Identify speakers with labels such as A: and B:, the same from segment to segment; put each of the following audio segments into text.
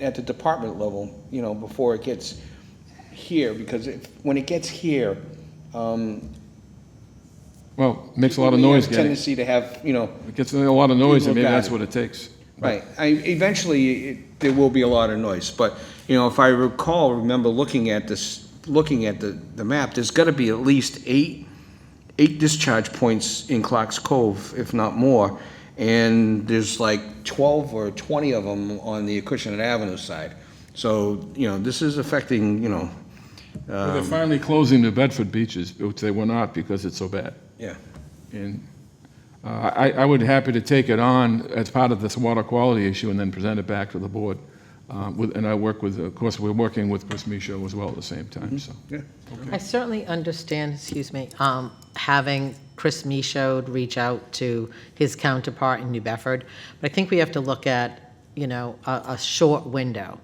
A: at the department level, you know, before it gets here, because if, when it gets here,
B: Well, it makes a lot of
A: we
B: noise
A: have a
B: getting, it
A: Tendency to have, you know,
B: gets a lot of noise,
A: People
B: and maybe
A: got
B: that's
A: it.
B: what it takes.
A: Right, I, eventually, it, there will be a lot of noise, but, you know, if I recall, remember looking at this, looking at the, the map, there's gotta be at least eight, eight discharge points in Clark's Cove, if not more, and there's like twelve or twenty of them on the Acushnet Avenue side. So, you know, this is affecting, you know,
B: Well, They're finally closing the Bedford beaches, which they were not because it's so bad.
A: yeah,
B: And uh, I, I would happy to take it on as part of this water quality issue and then present it back to the board. Uh, with- And I work with, of course, we're working with Chris Micho as well at the same time, so.
A: yeah.
C: I certainly understand, excuse me, um, having Chris Michaud reach out to his counterpart in New Bedford, but I think we have to look at, you know, a, a short window.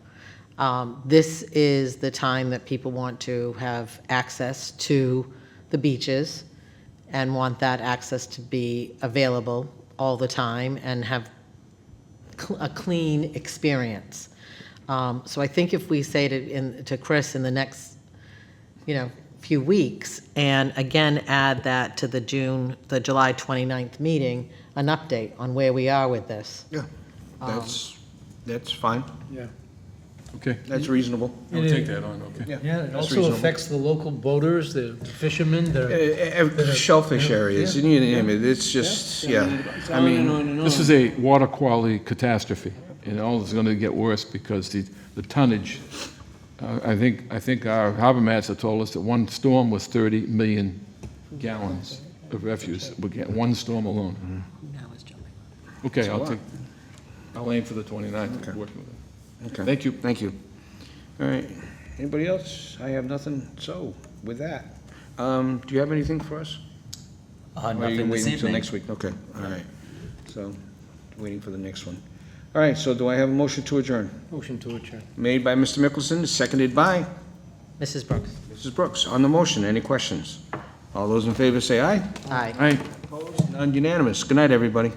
C: Um, This is the time that people want to have access to the beaches and want that access to be available all the time and have cl- a clean experience. Um, So I think if we say to, in- to Chris in the next, you know, few weeks, and again, add that to the June, the July 29th meeting, an update on where we are with this.
A: Yeah. That's, that's fine,
B: Okay,
A: that's reasonable.
B: I would take that on, okay.
D: Yeah, it
A: That's
D: also
A: reasonable.
D: affects the local boaters, the fishermen,
A: Uh,
D: the,
A: uh, Shellfish areas, you name it, it's just, yeah. I mean,
B: This is a water quality catastrophe, and all is going to get worse because the, the tonnage, uh, I think, I think our harbor master told us that one storm was 30 million gallons of refuse, we get one storm alone. Okay, I'll take, I'll aim for the 29th, and work with it.
A: Okay.
B: Thank you.
A: Thank you. All right. Anybody else? I have nothing. So, with that, um, do you have anything for us?
E: Uh,
A: Or you
E: nothing this
A: waiting until
E: evening.
A: next week? Okay, all right. So, waiting for the next one. All right, so do I have a motion to adjourn?
D: motion to adjourn.
A: Made by Mr. Mickelson, seconded by
C: Mrs. Brooks?
A: Mrs. Brooks. On the motion, any questions? All those in favor say aye.
C: Aye.
B: All right.
A: Opposed? None unanimous. Good night, everybody.